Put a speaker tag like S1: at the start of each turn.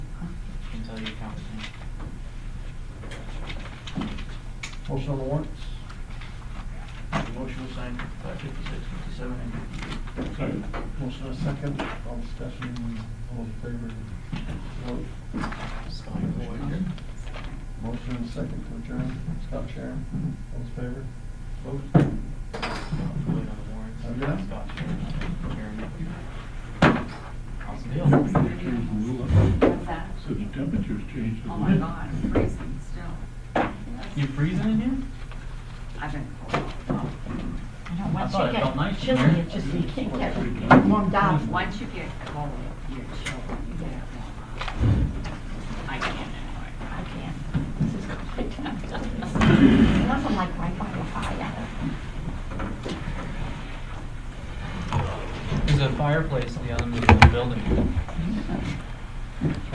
S1: so you count me.
S2: Motion on the warrants?
S1: The motion was signed by fifty-six, fifty-seven, and fifty-eight.
S3: Second.
S2: Motion on second, all discussion, all in favor? Vote.
S1: Scott Floyd.
S2: Motion on second to adjourn, Scott Sharon, all in favor? Vote.
S1: Scott Floyd on the warrants.
S2: Oh, yeah?
S1: Scott Sharon, Awesome deal.
S3: Temperatures blew up.
S4: What's that?
S3: So the temperatures changed. a
S4: Oh my
S3: little.
S4: God, it's freezing still.
S1: You freezing in here?
S4: I've been cold.
S5: I know, once
S1: thought
S5: you
S1: it felt
S5: get
S1: nice in
S5: chilly,
S1: here.
S5: it just, you can't get
S3: Pretty
S5: it
S3: good.
S5: warmed up.
S4: Once you get cold, you're chilled. You get it warm up. I can't anymore.
S5: I can't. This is quite, unless I'm like right by the fire.
S1: There's a fireplace in the other end of the building.